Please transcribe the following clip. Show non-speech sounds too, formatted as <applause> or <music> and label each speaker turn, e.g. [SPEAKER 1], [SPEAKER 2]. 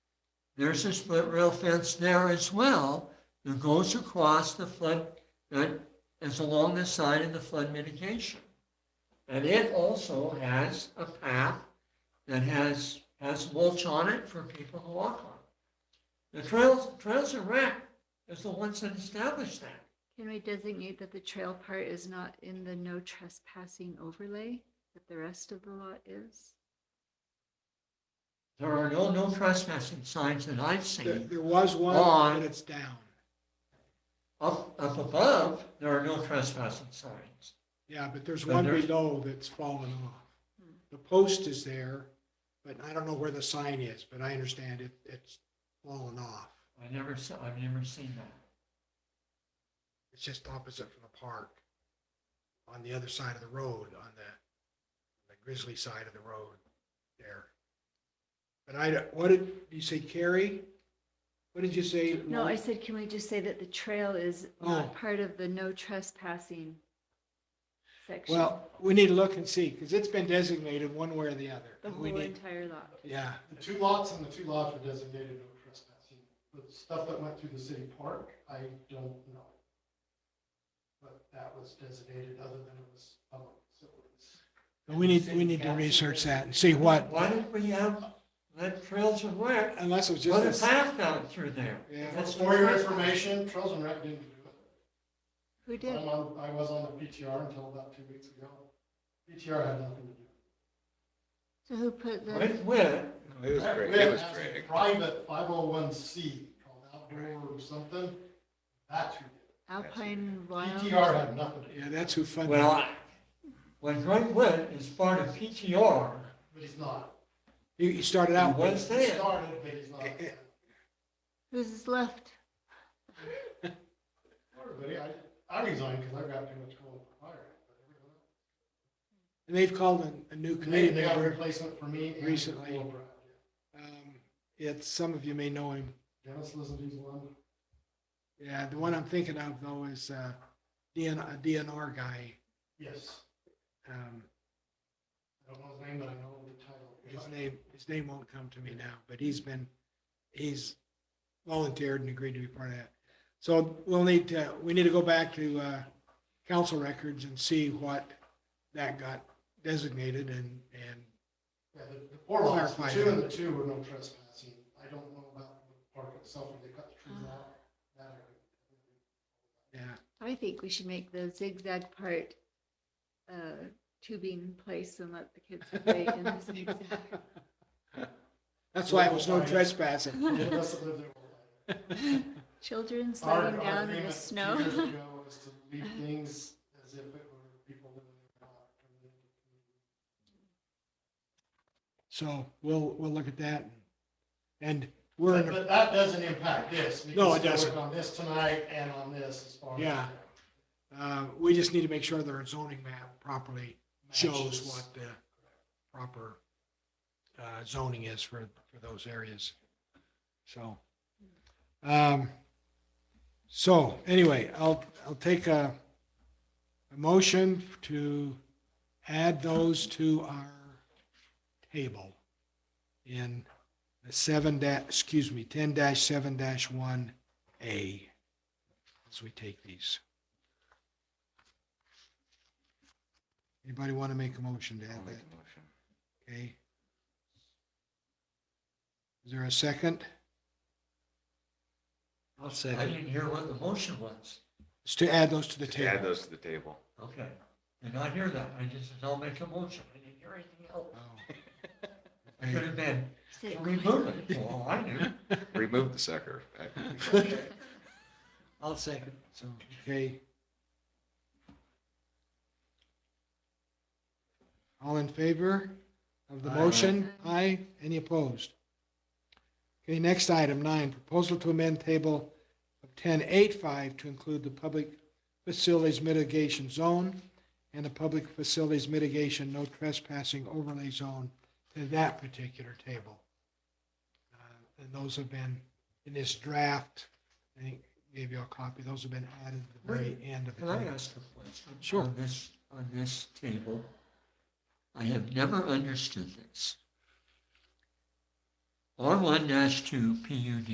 [SPEAKER 1] There's a split rail fence there as well that goes across the flood, that is along the side of the flood mitigation. And it also has a path that has, has mulch on it for people to walk on. The Trails, Trails and Rec is the ones that established that.
[SPEAKER 2] Can we designate that the trail part is not in the no trespassing overlay, that the rest of the lot is?
[SPEAKER 1] There are no, no trespassing signs that I've
[SPEAKER 3] There,
[SPEAKER 1] seen.
[SPEAKER 3] there was one,
[SPEAKER 1] On.
[SPEAKER 3] but it's down.
[SPEAKER 1] Up, up above, there are no trespassing signs.
[SPEAKER 3] Yeah, but there's
[SPEAKER 1] Then
[SPEAKER 3] one
[SPEAKER 1] there's-
[SPEAKER 3] below that's fallen off.
[SPEAKER 2] Hmm.
[SPEAKER 3] The post is there, but I don't know where the sign is, but I understand it, it's fallen off.
[SPEAKER 1] I never saw, I've never seen that.
[SPEAKER 3] It's just opposite from the park, on the other side of the road, on the, the grizzly side of the road there. But I, don't- what did, you say Carrie? What did you say?
[SPEAKER 2] No, I said, can we just say that the trail is
[SPEAKER 3] Oh.
[SPEAKER 2] not part of the no trespassing section?
[SPEAKER 3] Well, we need to look and see, because it's been designated one way or the other.
[SPEAKER 2] The
[SPEAKER 3] We
[SPEAKER 2] whole
[SPEAKER 3] need-
[SPEAKER 2] entire lot.
[SPEAKER 3] Yeah,
[SPEAKER 4] The two lots and the two lots were designated no trespassing. The stuff that went through the city park, I don't know. But that was designated other than it was public facilities.
[SPEAKER 3] but we need, we need to research that and see what,
[SPEAKER 1] Why didn't we have, let Trails and Rec
[SPEAKER 3] unless it was
[SPEAKER 1] put a
[SPEAKER 3] just, a-
[SPEAKER 1] path down through there?
[SPEAKER 3] Yeah.
[SPEAKER 1] That's
[SPEAKER 4] For your
[SPEAKER 1] not-
[SPEAKER 4] information, Trails and Rec didn't do it.
[SPEAKER 2] Who did?
[SPEAKER 4] I'm on, I was on the PTR until about two weeks ago. PTR had nothing to do.
[SPEAKER 2] So who put the,
[SPEAKER 1] With, with,
[SPEAKER 5] It was great.
[SPEAKER 4] We
[SPEAKER 5] It
[SPEAKER 4] had
[SPEAKER 5] was
[SPEAKER 4] asked a
[SPEAKER 5] great.
[SPEAKER 4] Private five oh one C called outdoor or something. That's who did
[SPEAKER 2] Alpine
[SPEAKER 4] it. PTR
[SPEAKER 2] Wild?
[SPEAKER 4] had nothing to do,
[SPEAKER 3] yeah, that's who funded.
[SPEAKER 1] well,
[SPEAKER 3] it.
[SPEAKER 1] I- when Great Wood is part of PTR,
[SPEAKER 4] but he's not.
[SPEAKER 3] He he started out
[SPEAKER 1] What? What's
[SPEAKER 3] with,
[SPEAKER 4] He
[SPEAKER 1] that?
[SPEAKER 4] started, but he's not.
[SPEAKER 2] Who's left?
[SPEAKER 4] Everybody, I, I resigned because I've got too much coal to fire.
[SPEAKER 3] and they've called a- a new
[SPEAKER 4] They,
[SPEAKER 3] committee
[SPEAKER 4] they got a
[SPEAKER 3] member.
[SPEAKER 4] replacement for me. and
[SPEAKER 3] Recently.
[SPEAKER 4] Will Brown,
[SPEAKER 3] Um, It's, some of you may know him.
[SPEAKER 4] yeah. Dennis Lizzie's one.
[SPEAKER 3] Yeah, the one I'm thinking of though is uh, DN a DNR guy.
[SPEAKER 4] Yes.
[SPEAKER 3] Um,
[SPEAKER 4] I don't know his name, but I know the title.
[SPEAKER 3] His name, his name won't come to me now, but he's been, he's volunteered and agreed to be part of that. So we'll need to, we need to go back to uh, council records and see what that got designated and, and
[SPEAKER 4] Yeah, the, the four lots, the
[SPEAKER 3] Clarify
[SPEAKER 4] two and
[SPEAKER 3] that.
[SPEAKER 4] the two were no trespassing. I don't know about the park itself, where they cut the trees
[SPEAKER 2] Ah.
[SPEAKER 4] out. That area.
[SPEAKER 3] yeah,
[SPEAKER 2] I think we should make the zigzag part uh, tubing place and let the kids play in
[SPEAKER 3] <laughs>
[SPEAKER 2] the zigzag.
[SPEAKER 3] that's why it was no trespassing.
[SPEAKER 4] <laughs> Those of us that lived there were like-
[SPEAKER 2] <laughs> Children
[SPEAKER 4] Our-
[SPEAKER 2] sliding
[SPEAKER 4] our
[SPEAKER 2] down in the
[SPEAKER 4] agreement
[SPEAKER 2] snow.
[SPEAKER 4] Two years ago was to leave things as if it were people living in a
[SPEAKER 3] So we'll, we'll look at that. And we're,
[SPEAKER 4] community.
[SPEAKER 3] in a-
[SPEAKER 4] But but that doesn't impact this. We
[SPEAKER 3] No,
[SPEAKER 4] can
[SPEAKER 3] it
[SPEAKER 4] still work
[SPEAKER 3] doesn't.
[SPEAKER 4] On this tonight and on this as far as.
[SPEAKER 3] Yeah. uh, we just need to make sure their zoning map properly shows
[SPEAKER 4] matches.
[SPEAKER 3] what the proper uh, zoning is for, for those areas. So, um, so anyway, I'll, I'll take a, a motion to add those to our table in the seven dash, excuse me, ten dash seven dash one A as we take these. Anybody want to make a motion to
[SPEAKER 5] I'll
[SPEAKER 3] add
[SPEAKER 5] make
[SPEAKER 3] that?
[SPEAKER 5] a motion.
[SPEAKER 3] Okay. Is there a second?
[SPEAKER 1] I'll say. I didn't hear what the motion was.
[SPEAKER 3] It's to add those to the
[SPEAKER 5] To add
[SPEAKER 3] table.
[SPEAKER 5] those to the table.
[SPEAKER 1] Okay, did not hear that. I just said, I'll make a motion. I didn't hear anything else.
[SPEAKER 3] Oh.
[SPEAKER 1] <laughs> I could have been,
[SPEAKER 2] <laughs> Say,
[SPEAKER 1] remove it, for all I knew.
[SPEAKER 5] Remove
[SPEAKER 3] <laughs>
[SPEAKER 5] the sucker.
[SPEAKER 1] I'll second.
[SPEAKER 3] So, okay. All in favor of the
[SPEAKER 1] Aye.
[SPEAKER 3] motion? Aye. Any opposed? Okay, next item, nine, proposal to amend table of 1085 to include the public facilities mitigation zone and the public facilities mitigation no trespassing overlay zone to that particular table. Uh, And those have been, in this draft, I think, gave you a copy, those have been added at the very end of the
[SPEAKER 1] Can I
[SPEAKER 3] table.
[SPEAKER 1] ask a question?
[SPEAKER 3] Sure.
[SPEAKER 1] On this, on this table, I have never understood this. R one dash two PUD.